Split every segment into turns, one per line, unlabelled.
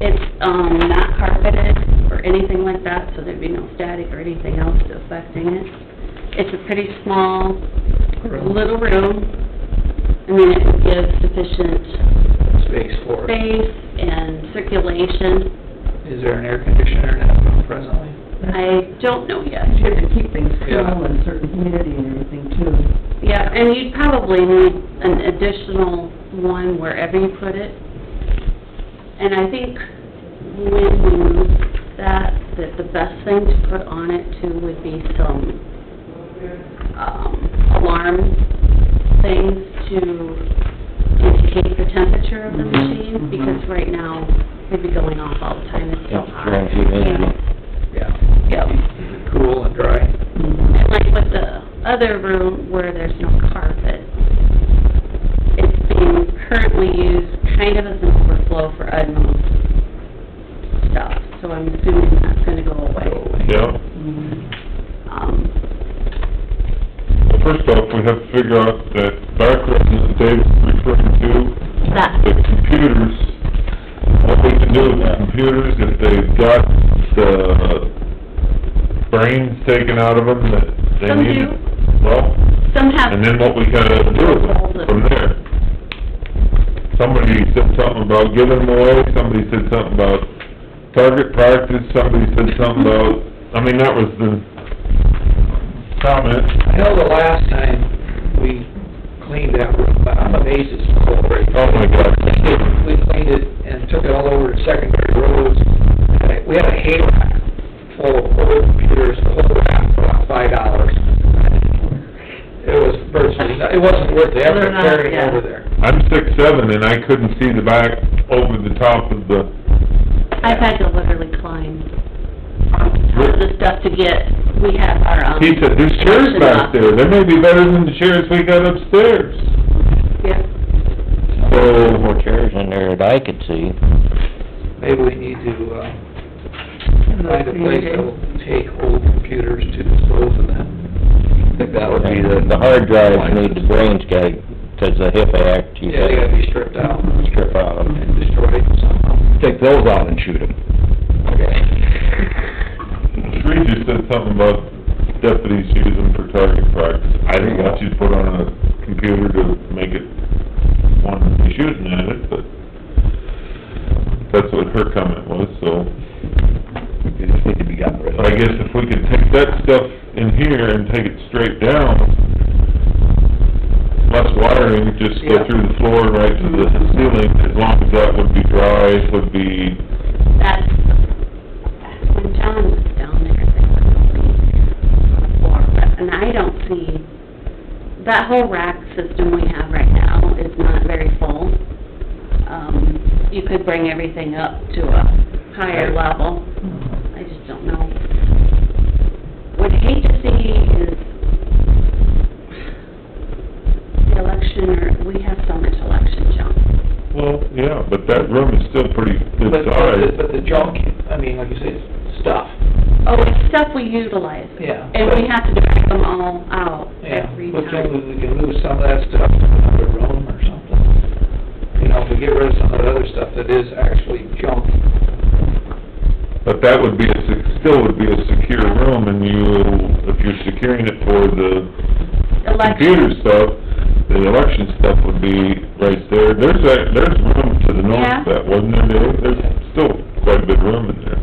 It's, um, not carpeted or anything like that, so there'd be no static or anything else affecting it. It's a pretty small, little room. I mean, it gives sufficient
Space for it.
space and circulation.
Is there an air conditioner now presently?
I don't know yet.
You have to keep things cool
Yeah.
and certain humidity and everything too.
Yeah, and you'd probably need an additional one wherever you put it. And I think when we move that, that the best thing to put on it too would be some, um, alarm things to indicate the temperature of the
Mhm,
machine,
mhm.
because right now, we'd be going off all the time, it's so
Yeah,
hot.
during humidity.
Yeah.
Yeah.
Cool and dry?
And like with the other room where there's no carpet, it's being currently used kind of as an overflow for Edmund's stuff, so I'm assuming that's gonna go away.
Yeah,
Mhm.
Um,
well, first off, we have to figure out that background that Dave's referring to,
that,
the computers, what we can do with the computers, if they've got the brains taken out of them, that they
Some
need.
do.
Well,
some have,
and then what we gotta do with it from there. Somebody said something about giving them away, somebody said something about target practice, somebody said something about, I mean, that was the comment.
I know the last time we cleaned that room, but I'm amazed it's full already.
Oh, my God.
We cleaned it and took it all over to secondary roads. And We had a hay rack full of old computers, the whole rack for about five dollars. It was virtually, it wasn't worth the effort
They're not,
carrying
yeah.
over there.
I'm six seven and I couldn't see the back over the top of the,
I've had to literally climb on top of the stuff to get, we have our, um...
he said, there's chairs back there, they may be better than the chairs we got upstairs.
Yeah,
So,
More chairs in there that I could see.
Maybe we need to, uh,
And
find a
those
place
humidity.
that'll take old computers to dispose of them.
I think that would be the...
The hard drives need the brains guy, 'cause the HIPAA Act, you
Yeah, they gotta
said,
be stripped out
strip out of them.
and destroyed somehow.
Take those out and shoot them.
Sri just said something about deputies use them for target practice. I think once you put on a computer to make it one to be shooting at it, but that's what her comment was, so.
They just need to be gotten rid of.
But I guess if we could take that stuff in here and take it straight down, less wiring, just go
Yeah. Mm-hmm.
through the floor and right to the ceiling, as long as that would be dry, would be,
that's, when John was down there, there was nobody floor, but, and I don't see, that whole rack system we have right now is not very full. Um, you could bring everything up to a higher level, I just don't know. What I hate to see is the election, or, we have so much election junk.
well, yeah, but that room is still pretty
But,
good
but the-
size.
but the junk, I mean, like you say, it's stuff.
Oh, it's stuff we utilize.
Yeah.
And we have to drag them all out
Yeah,
every
but
time.
then we can move some of that stuff to another room or something. You know, if we get rid of some of the other stuff that is actually junk.
But that would be a, sec- still would be a secure room, and you, if you're securing it for the computer
Election,
stuff, the election stuff would be right there. There's a, there's room to the
Yeah.
north of that, wasn't there, Dave? There's still quite a bit of room in there.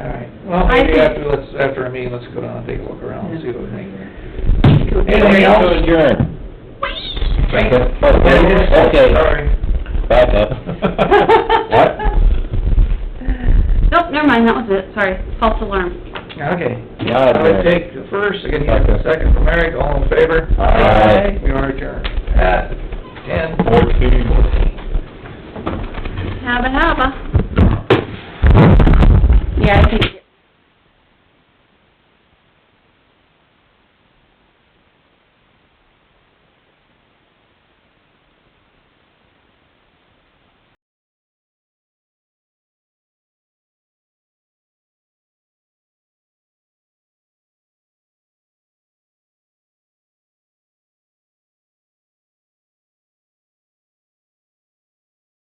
All right, well,
I
maybe
think-
after, let's, after our meeting, let's go down and take a look around and see what we think.
Motion
Anything else?
to adjourn.
Second.
Oh, Okay,
Sorry.
back up. What?
nope, never mind, that was it, sorry, false alarm.
Okay.
Now
I would
adjourn.
take the first, again, you have the second from Eric, all in favor?
Aye.
We are adjourned at ten
Fourteen.
Habba habba.